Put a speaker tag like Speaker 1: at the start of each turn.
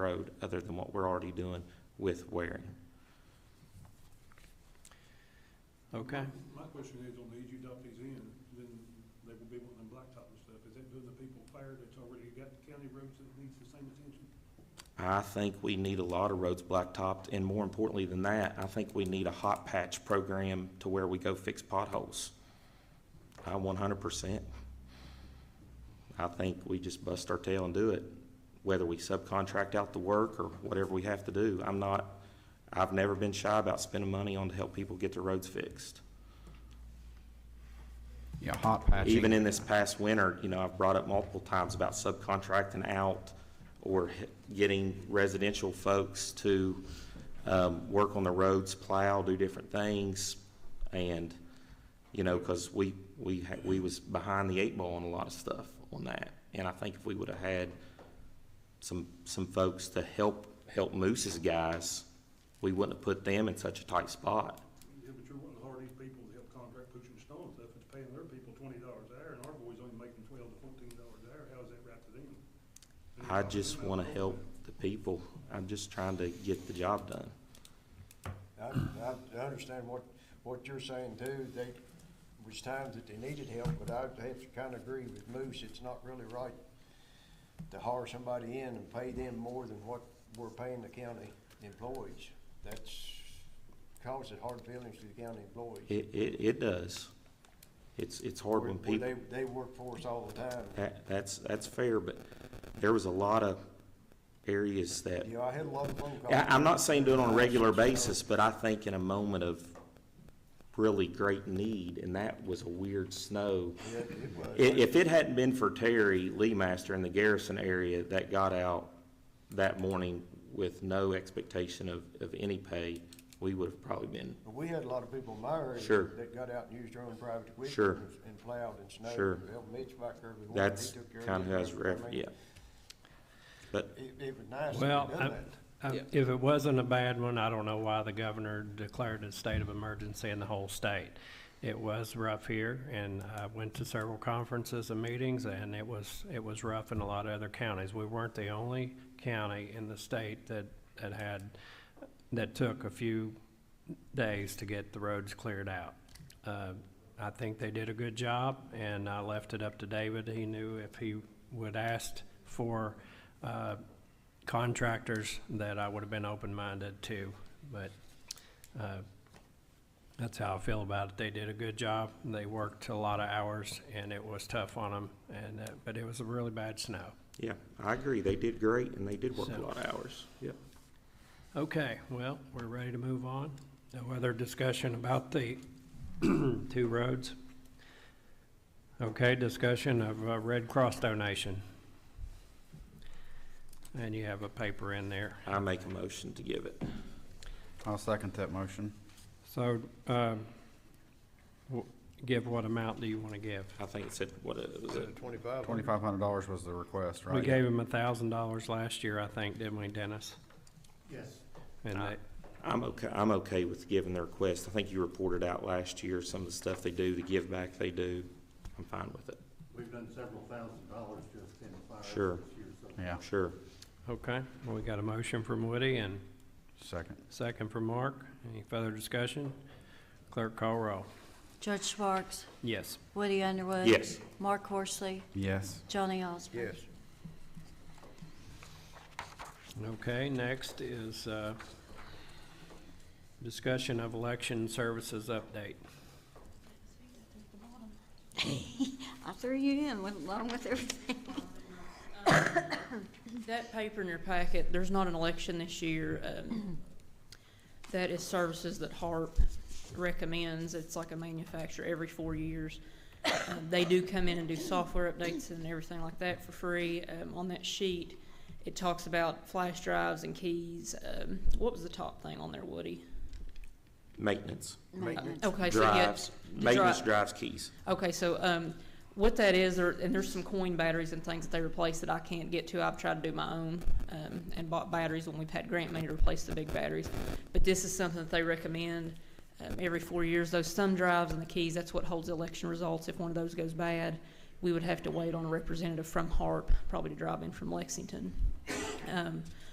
Speaker 1: road other than what we're already doing with Waring.
Speaker 2: Okay,
Speaker 3: My question is, on the E easy dump these in, then they will be wanting blacktop and stuff, is that doing the people fair that's already got county roads that needs the same attention?
Speaker 1: I think we need a lot of roads blacktopped, and more importantly than that, I think we need a hot patch program to where we go fix potholes. I one hundred percent. I think we just bust our tail and do it, whether we subcontract out the work or whatever we have to do. I'm not, I've never been shy about spending money on to help people get their roads fixed.
Speaker 4: Yeah, hot patching.
Speaker 1: Even in this past winter, you know, I've brought up multiple times about subcontracting out or h- getting residential folks to um, work on the roads, plow, do different things. And, you know, because we, we, ha- we was behind the eight ball on a lot of stuff on that. And I think if we would have had some, some folks to help, help Moose's guys, we wouldn't have put them in such a tight spot.
Speaker 3: Yeah, but you're wanting hard-eat people to help contract pushing stone and stuff, it's paying their people twenty dollars an hour, and our boys only making twelve to fourteen dollars an hour, how is that right to them?
Speaker 1: I just want to help the people. I'm just trying to get the job done.
Speaker 5: I, I- I understand what, what you're saying too, they, was times that they needed help, but I have to kinda agree with Moose, it's not really right to hire somebody in and pay them more than what we're paying the county employees. That's causes hard feelings to the county employees.
Speaker 1: It, it, it does. It's, it's hard when
Speaker 5: Where- where
Speaker 1: people,
Speaker 5: They, they work for us all the time.
Speaker 1: that, that's, that's fair, but there was a lot of areas that,
Speaker 5: You know, I had a lot of phone calls.
Speaker 1: I, I'm not saying do it on a regular basis, but I think in a moment of really great need, and that was a weird snow.
Speaker 5: Yeah, it was.
Speaker 1: I- if it hadn't been for Terry Lee Master in the Garrison area that got out that morning with no expectation of, of any pay, we would have probably been
Speaker 5: But we had a lot of people in my area
Speaker 1: Sure.
Speaker 5: that got out and used their own private equipment.
Speaker 1: Sure.
Speaker 5: and- And plowed and snowed.
Speaker 1: Sure.
Speaker 5: Well, Mitch back there, we wanted- he
Speaker 1: That's
Speaker 5: took care of
Speaker 1: kind of
Speaker 5: it.
Speaker 1: how it's
Speaker 5: I
Speaker 1: ref,
Speaker 5: mean,
Speaker 1: yeah. But
Speaker 5: It, it was nice to
Speaker 2: well,
Speaker 5: have
Speaker 2: I-
Speaker 5: done that.
Speaker 2: I- if it wasn't a bad one, I don't know why the governor declared a state of emergency in the whole state. It was rough here, and I went to several conferences and meetings, and it was, it was rough in a lot of other counties. We weren't the only county in the state that, that had, that took a few days to get the roads cleared out. Uh, I think they did a good job, and I left it up to David. He knew if he would asked for uh, contractors, that I would have been open-minded to, but uh, that's how I feel about it. They did a good job, and they worked a lot of hours, and it was tough on them, and, uh, but it was a really bad snow.
Speaker 1: Yeah, I agree. They did great and they did work a
Speaker 2: So-
Speaker 1: lot of hours. Yeah.
Speaker 2: Okay, well, we're ready to move on. No other discussion about the two roads? Okay, discussion of uh, Red Cross donation. And you have a paper in there.
Speaker 1: I make a motion to give it.
Speaker 4: I'll second that motion.
Speaker 2: So, um, w- give what amount do you want to give?
Speaker 1: I think it said, what, it was it?
Speaker 5: Twenty-five.
Speaker 4: Twenty-five hundred dollars was the request, right?
Speaker 2: We gave him a thousand dollars last year, I think, didn't we, Dennis?
Speaker 3: Yes.
Speaker 2: And
Speaker 1: Uh,
Speaker 2: they,
Speaker 1: I'm okay, I'm okay with giving the request. I think you reported out last year some of the stuff they do, the give back they do. I'm fine with it.
Speaker 6: We've done several thousand dollars just in fire
Speaker 1: Sure.
Speaker 6: this year, so.
Speaker 4: Yeah,
Speaker 1: Sure.
Speaker 2: okay, well, we got a motion from Woody and
Speaker 4: second.
Speaker 2: second from Mark. Any further discussion? Clerk call roll.
Speaker 7: Judge Sparks,
Speaker 2: Yes.
Speaker 7: Woody Underwood.
Speaker 1: Yes.
Speaker 7: Mark Horsley,
Speaker 4: Yes.
Speaker 7: Johnny Osborne.
Speaker 5: Yes.
Speaker 2: Okay, next is, uh, discussion of election services update.
Speaker 7: I threw you in, went along with everything.
Speaker 8: That paper in your packet, there's not an election this year. um, That is services that HARP recommends. It's like a manufacturer every four years. Uh, They do come in and do software updates and everything like that for free. Um, On that sheet, it talks about flash drives and keys. Um, What was the top thing on there, Woody?
Speaker 1: Maintenance.
Speaker 7: Maintenance.
Speaker 8: Okay, so yeah.
Speaker 1: Drives, maintenance
Speaker 8: dri-
Speaker 1: drives keys.
Speaker 8: Okay, so, um, what that is, there, and there's some coin batteries and things that they replace that I can't get to. I've tried to do my own, um, and bought batteries when we've had grant money to replace the big batteries. But this is something that they recommend, um, every four years. Those thumb drives and the keys, that's what holds election results. If one of those goes bad, we would have to wait on a representative from HARP, probably to drive in from Lexington. Um,